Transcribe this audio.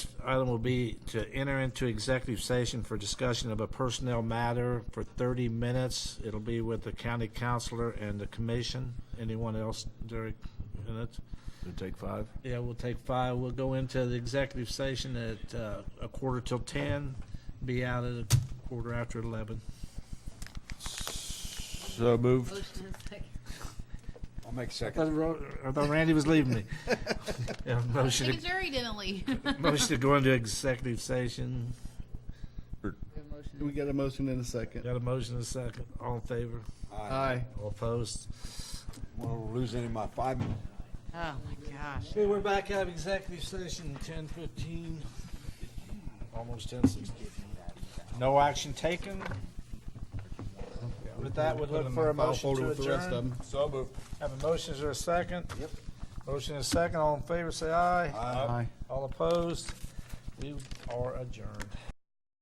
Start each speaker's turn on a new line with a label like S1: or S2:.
S1: item will be to enter into executive session for discussion of a personnel matter for 30 minutes. It'll be with the county counselor and the commission. Anyone else, Derek, in it?
S2: Gonna take five?
S1: Yeah, we'll take five. We'll go into the executive session at uh, a quarter till 10, be out at a quarter after 11.
S2: So moved.
S3: Motion and second.
S4: I'll make
S1: I
S4: second.
S1: thought Ro- I thought Randy was leaving me. Yeah, Motion
S3: Steve
S1: to-
S3: Zuri didn't leave.
S1: motion to go into executive session.
S5: We got a motion in a second.
S1: Got a motion and a second. All in favor?
S4: I
S5: Aye.
S1: All opposed?
S4: won't lose any of my five minutes.
S3: Oh, my gosh.
S1: Okay, we're back out of executive session, ten fifteen, almost ten sixteen. No action taken. With that, we'd
S5: Put it
S1: look
S5: in
S1: for a
S5: my file
S1: motion
S5: folder
S1: to
S5: with the rest of
S1: adjourn.
S5: 'em.
S4: So moved.
S1: Have a motion, is there a second? Yep. Motion is second, all in favor, say aye.
S4: Aye.
S5: Aye.
S1: All opposed? We are adjourned.